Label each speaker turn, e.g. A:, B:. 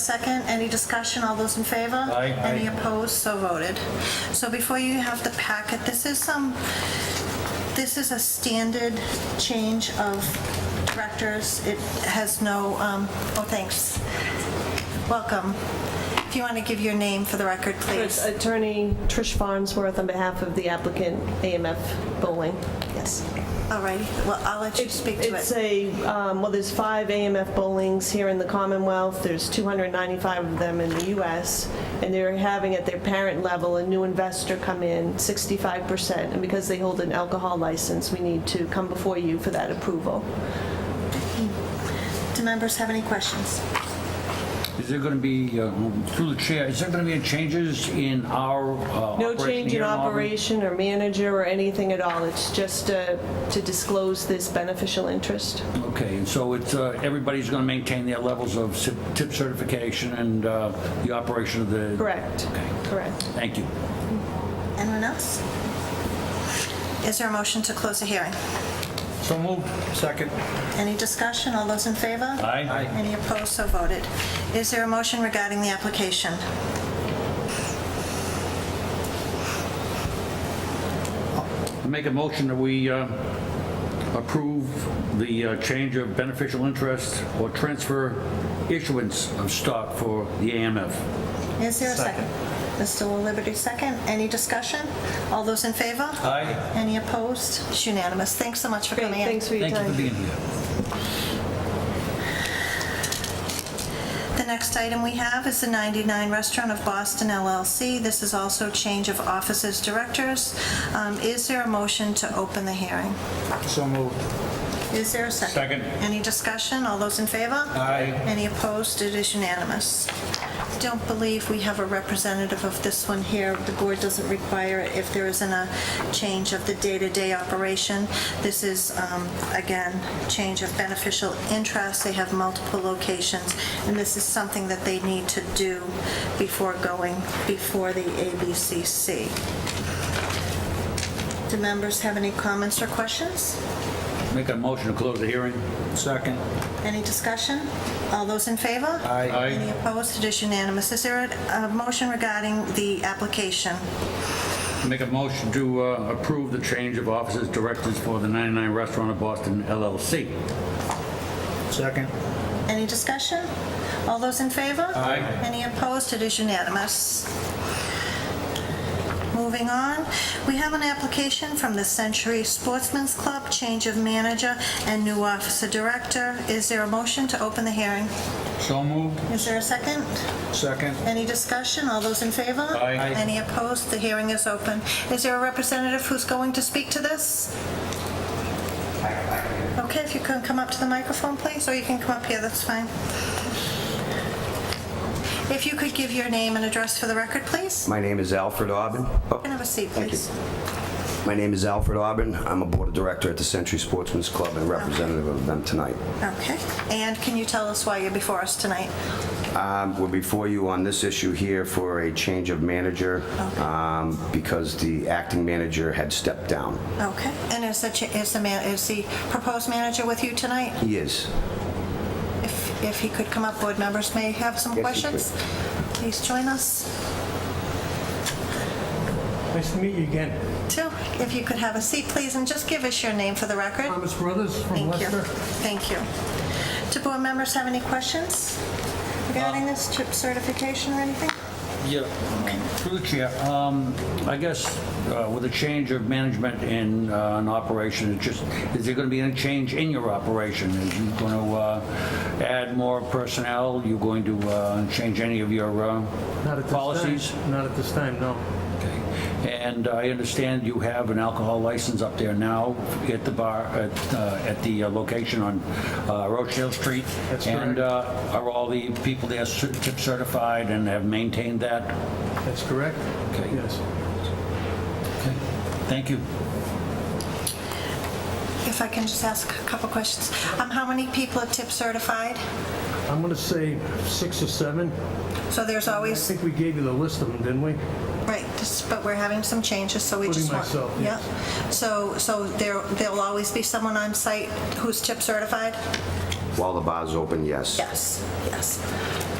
A: Second, any discussion, all those in favor?
B: Aye.
A: Any opposed, so voted. So before you have the packet, this is some, this is a standard change of directors. It has no, um, oh, thanks. Welcome. If you want to give your name for the record,
C: It's
A: please.
C: Attorney Trish Farnsworth on behalf of the applicant AMF Bowling, yes.
A: All right, well, I'll let you speak to
C: It's
A: it.
C: a, um, well, there's five AMF bowlings here in the Commonwealth, there's 295 of them in the US, and they're having at their parent level a new investor come in, 65%, and because they hold an alcohol license, we need to come before you for that approval.
A: Do members have any questions?
B: Is there going to be, uh, through the chair, is there going to be changes in our uh,
C: No
B: operation
C: change
B: here
C: in
B: Auburn?
C: operation or manager or anything at all, it's just uh, to disclose this beneficial interest.
B: Okay, and so it's, uh, everybody's going to maintain their levels of ci- tip certification and uh, the operation of the...
C: Correct,
B: Okay.
C: correct.
B: Thank you.
A: Anyone else? Is there a motion to close the hearing?
D: So moved. Second.
A: Any discussion, all those in favor?
B: Aye. Aye.
A: Any opposed, so voted. Is there a motion regarding the application?
B: I Make a motion that we uh, approve the uh, change of beneficial interest or transfer issuance of stock for the AMF.
A: Is there a second? Mr. Will Liberty, second. Any discussion? All those in favor? Aye. Any opposed? It's unanimous. Thanks so much for
C: Great,
A: coming in.
C: thanks for your
B: Thank you for
C: time.
B: being here.
A: The next item we have is the 99 Restaurant of Boston LLC. This is also change of offices directors. Um, Is there a motion to open the hearing?
D: So moved.
A: Is there a second?
B: Second.
A: Any discussion? All those in favor?
D: Aye.
A: Any opposed? It is unanimous. Don't believe we have a representative of this one here. The board doesn't require it if there isn't a change of the day-to-day operation. This is, um, again, change of beneficial interest. They have multiple locations, and this is something that they need to do before going before the ABCC. Do members have any comments or questions?
B: Make a motion to close the hearing.
D: Second.
A: Any discussion? All those in favor?
D: Aye. Aye.
A: Any opposed? It is unanimous. Is there a a motion regarding the application?
B: Make a motion to uh, approve the change of offices directors for the 99 Restaurant of Boston LLC.
D: Second.
A: Any discussion? All those in favor? Aye. Any opposed? It is unanimous. Moving on, we have an application from the Century Sportsman's Club, change of manager and new officer director. Is there a motion to open the hearing?
B: So moved.
A: Is there a second?
D: Second.
A: Any discussion? All those in favor?
B: Aye.
A: Any opposed? The hearing is open. Is there a representative who's going to speak to this? Okay, if you can come up to the microphone, please, or you can come up here, that's fine. If you could give your name and address for the record, please?
E: My name is Alfred Auburn. Oh,
A: Can I have a seat,
E: Thank you.
A: please?
E: My name is Alfred Auburn. I'm a board director at the Century Sportsman's Club and representative of them tonight.
A: Okay. And can you tell us why you're before us tonight?
E: Um, We're before you on this issue here for a change of manager um, because the acting manager had stepped down.
A: Okay. And is the, cha- is the, man- is the proposed manager with you tonight?
E: He is.
A: If, if he could come up, board members may have some
E: Yes, he
A: questions. Please join us.
F: Nice to meet you again.
A: Two, if you could have a seat, please, and just give us your name for the record.
F: Thomas Brothers from
A: Thank you.
F: Leicester.
A: Thank you. Do board members have any questions regarding
F: Uh,
A: this chip certification or anything?
B: Yeah. Through the chair, um, I guess uh, with a change of management in uh, an operation, it just, is there going to be any change in your operation? Is you going to add more personnel? You going to uh, change any of your uh,
F: Not at this time.
B: policies?
F: Not at this time, no.
B: Okay. And I understand you have an alcohol license up there now at the bar, at, uh, at the uh, location on uh, Rochdale Street?
F: That's
B: And uh, are all the people there cer- tip certified and have maintained that?
F: That's correct?
B: Okay.
F: Yes.
B: Okay. Thank you.
A: If I can just ask a couple questions. Um, How many people are tip certified?
F: I'm going to say six or seven.
A: So there's
F: I
A: always,
F: think we gave you the list of them, didn't we?
A: right, this- but we're having some changes, so we
F: Including
A: just want...
F: myself, yes.
A: Yeah. So, so there, there'll always be someone on site who's tip certified?
E: While the bar's open, yes.
A: Yes, yes.